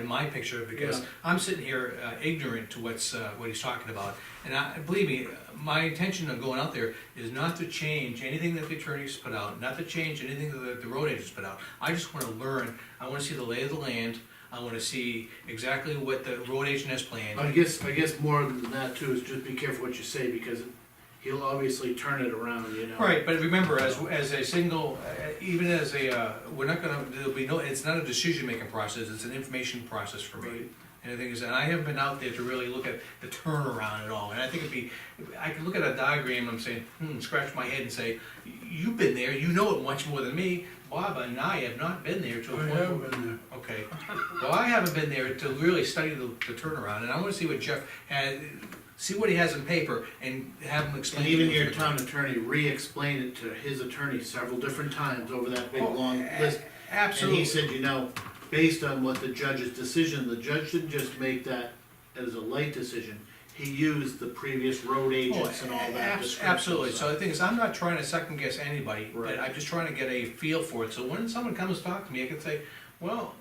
my picture, because Yeah. I'm sitting here uh, ignorant to what's, uh, what he's talking about. And I, believe me, my intention of going out there is not to change anything that the attorneys put out, not to change anything that the road agents put out. I just wanna learn, I wanna see the lay of the land, I wanna see exactly what the road agent has planned. I guess, I guess more than that too, is just be careful what you say, because he'll obviously turn it around, you know? Right, but remember, as, as a single, uh, even as a, uh, we're not gonna, there'll be no, it's not a decision-making process, it's an information process for me. Right. And the thing is, and I haven't been out there to really look at the turnaround at all, and I think it'd be, I could look at a diagram, and I'm saying, hmm, scratch my head and say, you've been there, you know it much more than me, Bob and I have not been there to a I point. where- have been there. Okay, well, I haven't been there to really study the, the turnaround, and I wanna see what Jeff had, see what he has in paper, and have him explain. And to even me. your town attorney re-explained it to his attorney several different times over that big Oh, long a- list. And Absolutely. he said, you know, based on what the judge's decision, the judge didn't just make that as a light decision. He used the previous road agents and all that Oh, eh, Abs- description. Absolutely, so the thing is, I'm not trying to second guess anybody, but Right. I'm just trying to get a feel for it, so when someone comes to talk to me, I can say, well,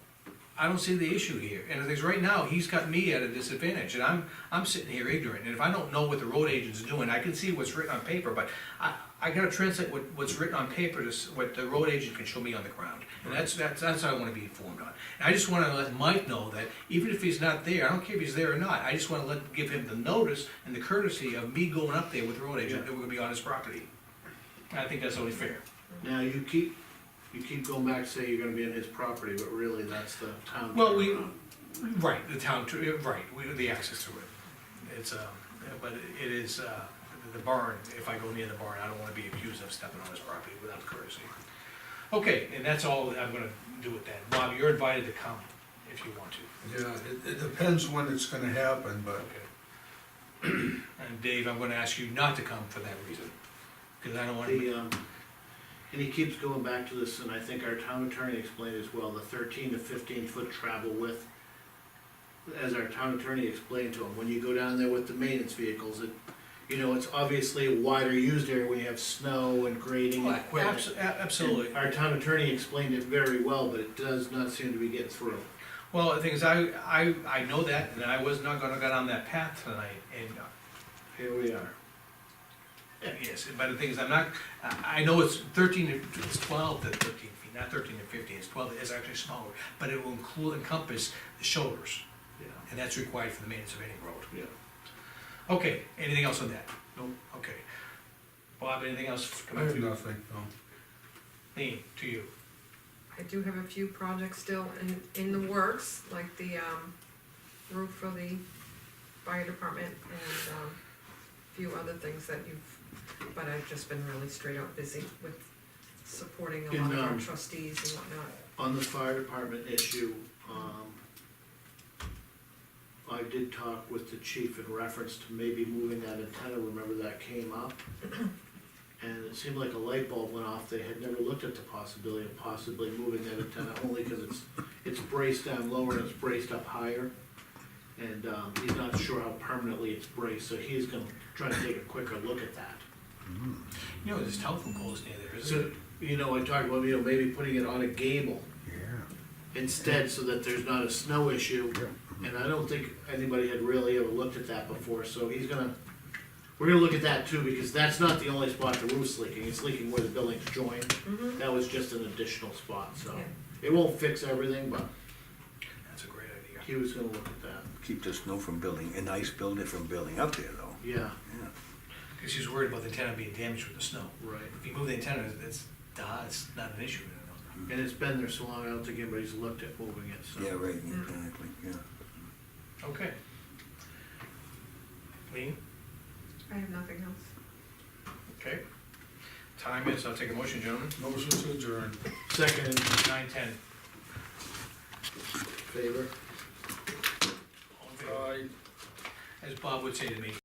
I don't see the issue here, and the thing is, right now, he's got me at a disadvantage, and I'm, I'm sitting here ignorant, and if I don't know what the road agent's doing, I can see what's written on paper, but I, I gotta translate what, what's written on paper to s- what the road agent can show me on the ground, and that's, that's, that's what I wanna be informed on. And I just wanna let Mike know that even if he's not there, I don't care if he's there or not, I just wanna let, give him the notice and the courtesy of me going up there with the road agent, that we're gonna be on his property. And I think that's only fair. Now, you keep, you keep going back, to say you're gonna be on his property, but really, that's the town. Well, we, turnaround. right, the town, tr- right, we, the access to it, it's, um, but it is, uh, the barn, if I go near the barn, I don't wanna be accused of stepping on his property without courtesy. Okay, and that's all I'm gonna do with that, Bob, you're invited to come if you want to, Yeah, it, it depends when it's gonna happen, but okay? And Dave, I'm gonna ask you not to come for that reason, cause I don't wanna, The, um, and he keeps going back to this, and I think our town attorney explained as well, the thirteen to fifteen foot travel width. As our town attorney explained to him, when you go down there with the maintenance vehicles, it, you know, it's obviously a wider used area when you have snow and grading and Well, equipment. abso- a- Oh, absolutely. Our town attorney explained it very well, but it does not seem to be getting through. Well, the thing is, I, I, I know that, and I was not gonna go down that path tonight, and uh, Here we are. Yes, but the thing is, I'm not, I I know it's thirteen, to- it's twelve to thirteen feet, not thirteen to fifteen, it's twelve, it's actually smaller, but it will include, encompass the shoulders, Yeah, and that's required for the maintenance of any road. yeah. Okay, anything else on that? Nope. Okay. Bob, anything else I coming have through? nothing, no. Lean, to you. I do have a few projects still in, in the works, like the, um, roof for the fire department and, um, a few other things that you've, but I've just been really straight out busy with supporting a lot of And, our um, trustees and whatnot. On the fire department issue, um, I did talk with the chief in reference to maybe moving that antenna, remember that came up? And it seemed like a light bulb went off, they had never looked at the possibility of possibly moving that antenna, only because it's, it's braced down lower and it's braced up higher. And, um, he's not sure how permanently it's braced, so he's gonna try to take a quicker look at that. You know, there's telephone poles near there, isn't So, it? you know, I talked about, you know, maybe putting it on a gable, Yeah. instead so that there's not a snow issue. And I don't think anybody had really ever looked at that before, so he's gonna, we're gonna look at that too, because that's not the only spot the roof's leaking, it's leaking where the buildings join. Mhm. That was just an additional spot, so Yeah. it won't fix everything, but That's a great idea. he was gonna look at that, keep the snow from building, and ice build it from building up there though. yeah, Cause she's worried about the antenna being damaged with the snow. right. If you move the antenna, it's, duh, it's not an issue, you know? And it's been there so long, I don't think anybody's looked at moving it, so. Yeah, right, exactly, yeah. Okay. Lean? I have nothing else. Okay. Time is, I'll take a motion, gentlemen, Motion to adjourn. Second in nine ten. favor. As Bob would say to me,